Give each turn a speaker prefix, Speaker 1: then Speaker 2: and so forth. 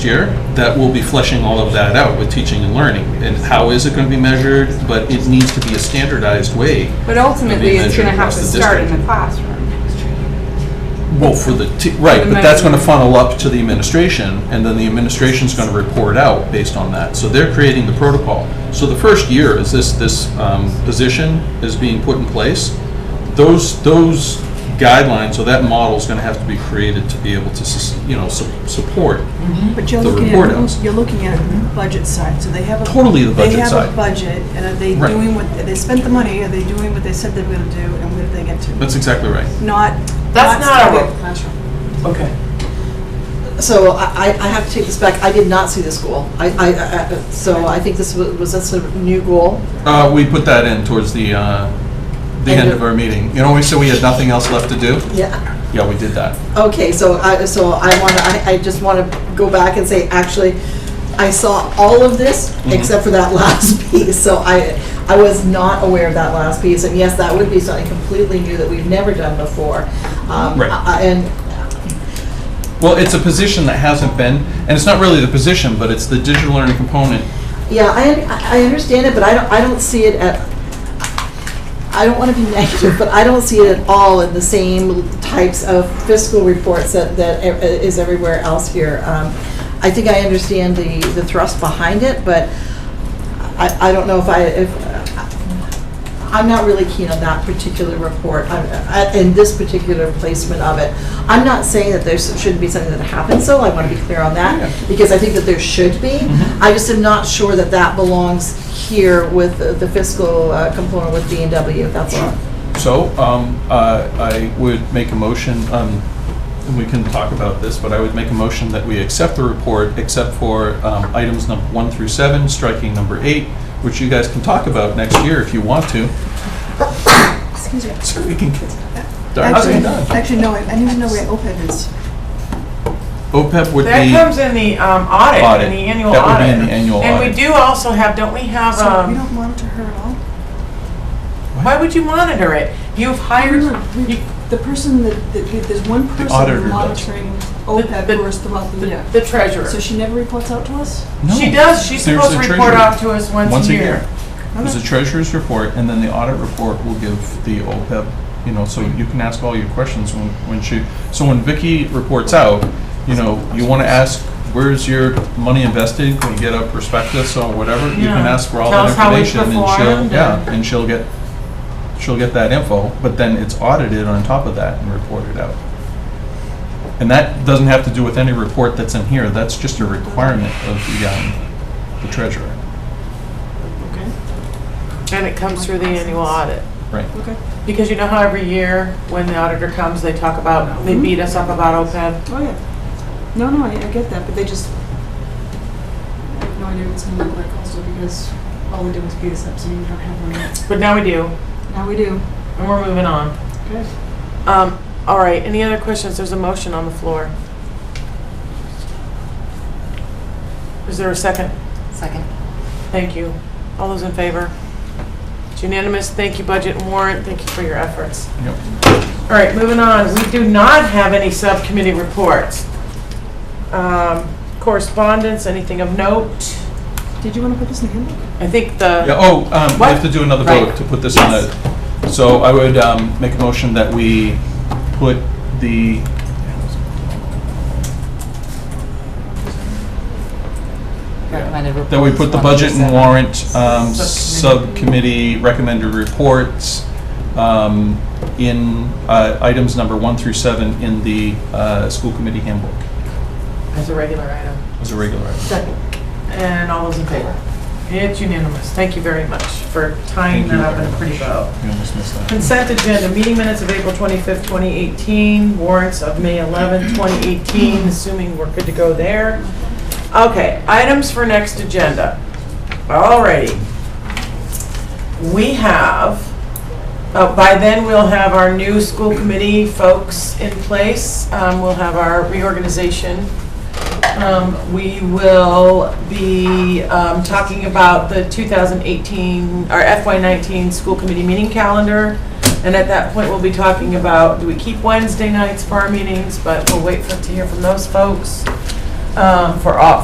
Speaker 1: year that will be fleshing all of that out with teaching and learning. And how is it going to be measured? But it needs to be a standardized way.
Speaker 2: But ultimately, it's going to have to
Speaker 1: Maybe measured across the
Speaker 2: start in
Speaker 1: district.
Speaker 2: the classroom.
Speaker 1: Well, for the, te- right,
Speaker 2: For the
Speaker 1: but that's going to
Speaker 2: measurement.
Speaker 1: funnel up to the administration, and then the administration's going to report out based on that. So they're creating the protocol. So the first year is this, this um, position is being put in place. Those, those guidelines, or that model's going to have to be created to be able to, sus- you know, su- support.
Speaker 3: But you're
Speaker 1: the
Speaker 3: looking
Speaker 1: report
Speaker 3: at,
Speaker 1: outs.
Speaker 3: you're looking at the budget side, so they have a.
Speaker 1: Totally the budget
Speaker 3: They have
Speaker 1: side.
Speaker 3: a budget, and are they
Speaker 1: Right.
Speaker 3: doing what, they spent the money, are they doing what they said they were gonna do, and where did they get to?
Speaker 1: That's exactly right.
Speaker 3: Not.
Speaker 4: That's not our-
Speaker 3: starting at the classroom.
Speaker 4: Okay.
Speaker 5: So I, I I have to take this back. I did not see this goal. I, I, I- so I think this was, was this a new goal?
Speaker 1: Uh, we put that in towards the, uh, the end of our meeting. You know, we said we had nothing else left to do?
Speaker 5: Yeah.
Speaker 1: Yeah, we did that.
Speaker 5: Okay, so I, so I want to, I, I just want to go back and say, actually, I saw all of this except for that last piece. So I, I was not aware of that last piece. And yes, that would be something completely new that we've never done before. Um,
Speaker 1: Right.
Speaker 5: I- I- And
Speaker 1: Well, it's a position that hasn't been, and it's not really the position, but it's the digital learning component.
Speaker 5: Yeah, I, I understand it, but I don't, I don't see it at, I don't want to be negative, but I don't see it at all in the same types of fiscal reports that, that e- is everywhere else here. Um, I think I understand the, the thrust behind it, but I, I don't know if I, if, I'm not really keen on that particular report, I'm- I- and this particular placement of it. I'm not saying that there shouldn't be something that happens, so I want to be clear on that,
Speaker 1: Yeah.
Speaker 5: because I think that there should be. I just am not sure that that belongs here with the- the fiscal uh, component with B and W, that's all.
Speaker 1: So, um, uh, I would make a motion, um, and we can talk about this, but I would make a motion that we accept the report, except for, um, items number one through seven, striking number eight, which you guys can talk about next year if you want to.
Speaker 3: Excuse me.
Speaker 1: So we can get Darn,
Speaker 3: Actually,
Speaker 1: I'm done.
Speaker 3: actually, no, I I need to know where OPEB is.
Speaker 1: OPEB would be.
Speaker 4: That comes in the um, audit,
Speaker 1: Audit.
Speaker 4: in the annual audit.
Speaker 1: That would be in the annual
Speaker 4: And
Speaker 1: audit.
Speaker 4: we do also have, don't we have,
Speaker 3: So we
Speaker 4: um,
Speaker 3: don't monitor her at all?
Speaker 4: why would you monitor it? You've hired,
Speaker 3: No, no, we-
Speaker 4: you-
Speaker 3: The person that, that- that- there's one
Speaker 1: auditor
Speaker 3: person
Speaker 1: does.
Speaker 3: monitoring
Speaker 4: The-
Speaker 3: OPEB
Speaker 4: the-
Speaker 3: for us throughout the year.
Speaker 4: the treasurer.
Speaker 3: So she never reports out to us?
Speaker 1: No.
Speaker 4: She does, she's
Speaker 1: There's
Speaker 4: supposed to
Speaker 1: the
Speaker 4: report
Speaker 1: treasurer.
Speaker 4: out to us once a year.
Speaker 1: There's a treasurer's report, and then the audit report will give the OPEB, you know, so you can ask all your questions when, when she, so when Vicky reports out, you know, you wanna ask, where's your money invested, can you get a prospectus or whatever, you can
Speaker 4: Yeah.
Speaker 1: ask for all
Speaker 4: Tell
Speaker 1: that
Speaker 4: us how we
Speaker 1: information, and she'll,
Speaker 4: performed,
Speaker 1: yeah,
Speaker 4: and-
Speaker 1: and she'll get, she'll get that info, but then it's audited on top of that and reported out. And that doesn't have to do with any report that's in here, that's just a requirement of the, um, the treasurer,
Speaker 4: And it comes through the annual audit.
Speaker 1: right?
Speaker 3: Okay,
Speaker 4: Because you know how every year, when the auditor comes, they talk about, they beat us up about OPEB?
Speaker 3: Mm-hmm. oh yeah. No, no, I, I get that, but they just, I have no idea what's gonna look like also because all we do is beat us up, so we don't have one yet.
Speaker 4: But now we do,
Speaker 3: Now we do.
Speaker 4: and we're moving on.
Speaker 3: Good.
Speaker 4: Um, all right, any other questions? There's a motion on the floor. Is there a second?
Speaker 6: Second.
Speaker 4: Thank you. All those in favor? It's unanimous. Thank you, Budget and Warrant. Thank you for your efforts.
Speaker 1: Yep.
Speaker 4: All right, moving on. We do not have any subcommittee reports. Um, Correspondence, anything of note?
Speaker 3: Did you wanna put this in the handbook?
Speaker 4: I think the,
Speaker 1: Yeah, oh, um, we have
Speaker 4: What?
Speaker 1: to do another
Speaker 4: Right.
Speaker 1: vote to put this on the, so I would, um, make a motion that we put the,
Speaker 6: Recommended report.
Speaker 1: that we put the budget and warrant, um,
Speaker 4: Subcommittee.
Speaker 1: subcommittee recommended reports, um, in, uh, items number one through seven in the, uh, school committee handbook
Speaker 4: as a regular item.
Speaker 1: as a regular item.
Speaker 4: And all those in favor? It's unanimous. Thank you very much for tying
Speaker 1: Thank
Speaker 4: that
Speaker 1: you
Speaker 4: up
Speaker 1: very
Speaker 4: in a pretty bow.
Speaker 1: You almost missed that.
Speaker 4: Consent agenda, meeting minutes of April 25th, 2018, warrants of May 11th, 2018, assuming we're good to go there. Okay, items for next agenda. Alrighty. We have, uh, by then, we'll have our new school committee folks in place. Um, We'll have our reorganization. Um, We will be um, talking about the 2018, or FY19 school committee meeting calendar. And at that point, we'll be talking about, do we keep Wednesday nights for our meetings? But we'll wait for to hear from those folks. um, for all,